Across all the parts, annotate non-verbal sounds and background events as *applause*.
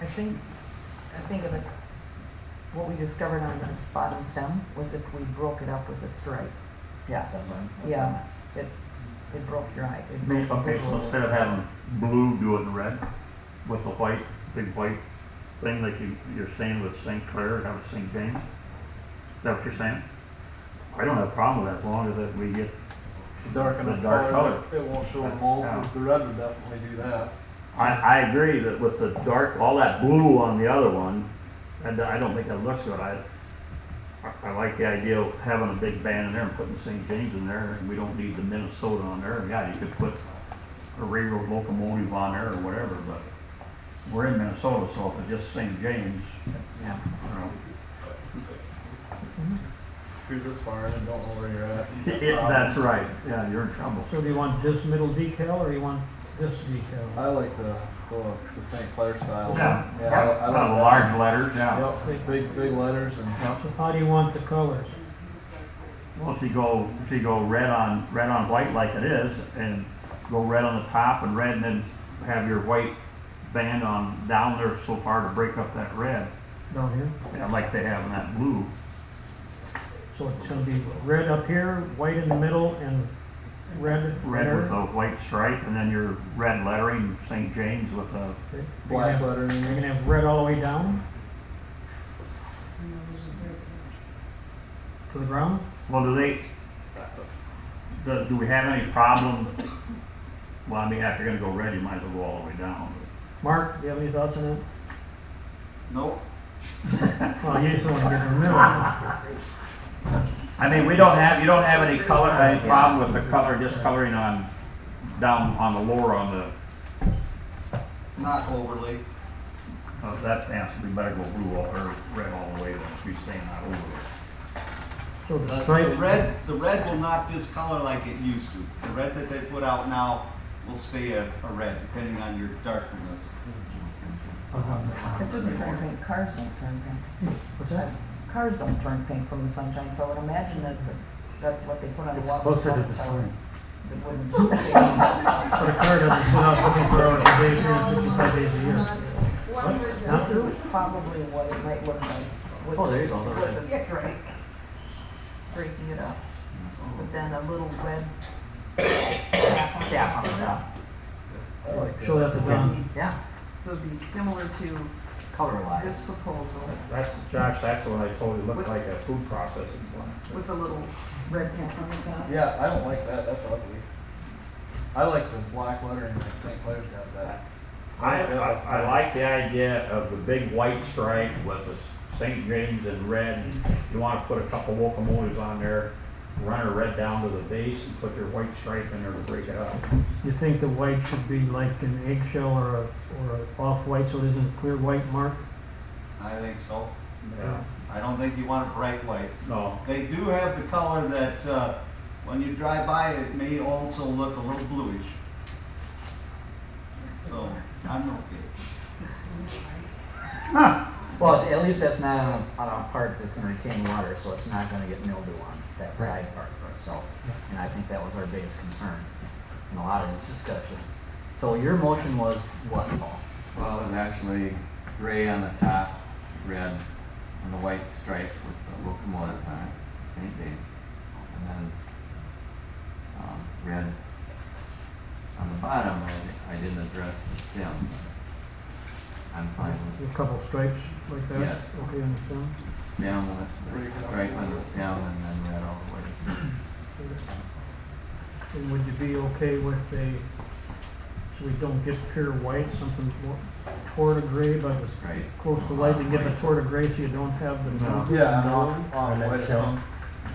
I think, I think of it, what we discovered on the bottom stem was if we broke it up with a stripe, yeah, That's fine. yeah, it, it broke your eye. It May- broke the Okay, so rule. instead of having blue doing the red with the white, big white thing like you, you're saying with St. Clair, have it St. James? Is that what you're saying? I don't have a problem with that, as long as that we get, dark enough The dark color, it won't show them all, Yeah. the red would definitely do that. I, I agree that with the dark, all that blue on the other one, I, d- I don't think that looks good. I, I- I like the idea of having a big band in there and putting St. James in there, and we don't need the Minnesota on there. Yeah, you could put a railroad locomotive on there or whatever, but we're in Minnesota, so if it's just St. James, Yeah. you know, You're just firing and don't know where you're at. *laughs* Um, it- that's right. Yeah, you're in trouble. So do you want this middle decal or you want this decal? I like the, the, the St. Clair style. Yeah, Yeah, I, I Kind of like large letters, that. yeah. Yep, big, big letters and, So how do you want the colors? Well, if you go, if you go red on, red on white like it is, and go red on the top and red, and then have your white band on down there so far to break up that red, Down here? yeah, like they have in that blue. So it's gonna be red up here, white in the middle, and red Red with there. a white stripe, and then your red lettering, St. James with a, Okay. You're gonna black have- lettering. You're gonna have red all the way down? To the ground? well, do they, uh, do, do we have any problem? Well, I mean, if you're gonna go red, you might as well go all the way down. Mark, do you have any thoughts on that? Nope. *laughs* Well, you just wanna get in the middle. I mean, we don't have, you don't have any color, any problem with the color, just coloring on, down on the lower on the Not overly. Uh, that answer, we better go blue all, or red all the way, then, if we stay not over there. So the The the stripe, red, the red will not discolor like it used to. The red that they put out now will stay a, a red, depending on your darkness. It doesn't turn pink, cars don't turn pink. what's that? Cars don't turn pink from the sunshine, so I would imagine that, that's what they put on the water. closer to the sun. It wouldn't. *laughs* So the car doesn't sit out twenty-four hours a day, three hundred fifty-five days a year. This is probably what it might look like. with Oh, there you the- go, there it With a stripe, breaking it up, but then a little red cap on it. I like that. Show that to Don. Yeah, so it'd be similar to color line. this proposal That's, Josh, that's the one I told you looked like a food processing plant. with a little red cap on the top. Yeah, I don't like that, that's ugly. I like the black lettering that St. Clair's got that. I, I I like the idea of the big white stripe with the St. James in red. You wanna put a couple locomotives on there, run a red down to the base and put your white stripe in there to break it up. You think the white should be like an eggshell or a, or a off-white, so it isn't a clear white mark? I think so. Yeah, I don't think you want a bright white. no, They do have the color that, uh, when you drive by, it may also look a little bluish. So, I'm okay. Well, at least that's not on a, on a part that's gonna retain water, so it's not gonna get mildew on that side part for itself. And I think that was our biggest concern in a lot of these discussions. So your motion was what, Paul? Well, it was actually gray on the top, red on the white stripe with the locomotives on it, St. James. And then, um, red on the bottom, I, I didn't address the stem. I'm fine with A couple stripes like that? Yes. Okay, understand? the stem, with the stripe on the stem, and then red all the way. And would you be okay with a, so we don't get pure white, something more toward a gray, but as Right. close to light, you get the toward a gray, so you don't have the. No. Yeah, and off, off Or white, eggshell. some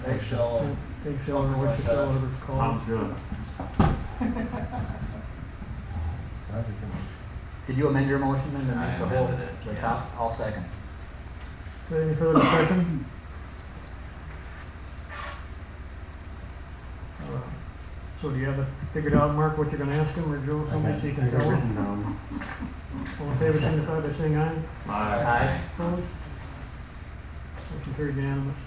eggshell and Eggshell or what you call it, whatever it's called. Sounds good. Did you amend your motion and then make the I whole, amended it, the yes. top, all second? Any further discussion? Uh, So do you have it figured out, Mark, what you're gonna ask him, or Joe, somebody so you can tell him? All in favor, signify by saying aye. Aye. Aye. Opposed? Motion carried unanimous.